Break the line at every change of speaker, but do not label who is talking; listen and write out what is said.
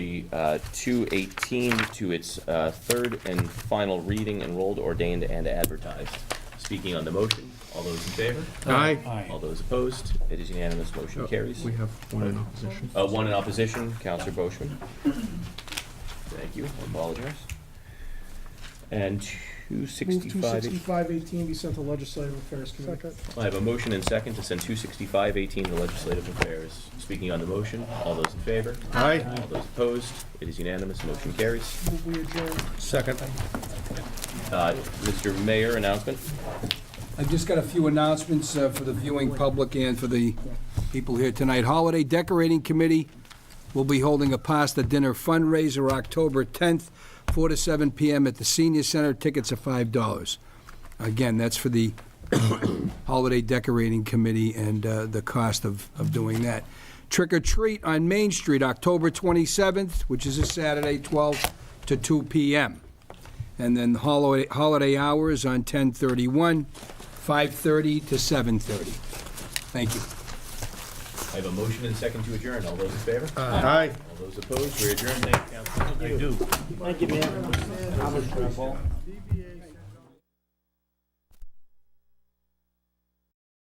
be uh, 218 to its uh, third and final reading, enrolled, ordained, and advertised. Speaking on the motion, all those in favor?
Aye.
All those opposed? It is unanimous, motion carries.
We have one in opposition.
Uh, One in opposition, Counselor Boishman. Thank you, I apologize. And
Move two
265,
sixty-five eighteen be sent to Legislative Affairs Committee.
I have a motion and second to send 265-18 to Legislative Affairs. Speaking on the motion, all those in favor?
Aye.
All those opposed? It is unanimous, motion carries.
Move we adjourn.
Second.
Uh, Mr. Mayor, announcement?
I've just got a few announcements uh, for the viewing public and for the people here tonight. Holiday Decorating Committee will be holding a pasta dinner fundraiser October 10th, 4 to 7 p.m. at the Senior Center. Tickets are $5. Again, that's for the Holiday Decorating Committee and uh, the cost of of doing that. Trick or Treat on Main Street, October 27th, which is a Saturday, 12 to 2 p.m. And then holiday, holiday hours on 10:31, 5:30 to 7:30. Thank you.
I have a motion and second to adjourn, all those in favor?
Aye.
All those opposed? We adjourn, thank you, Counselor.
Thank you, man.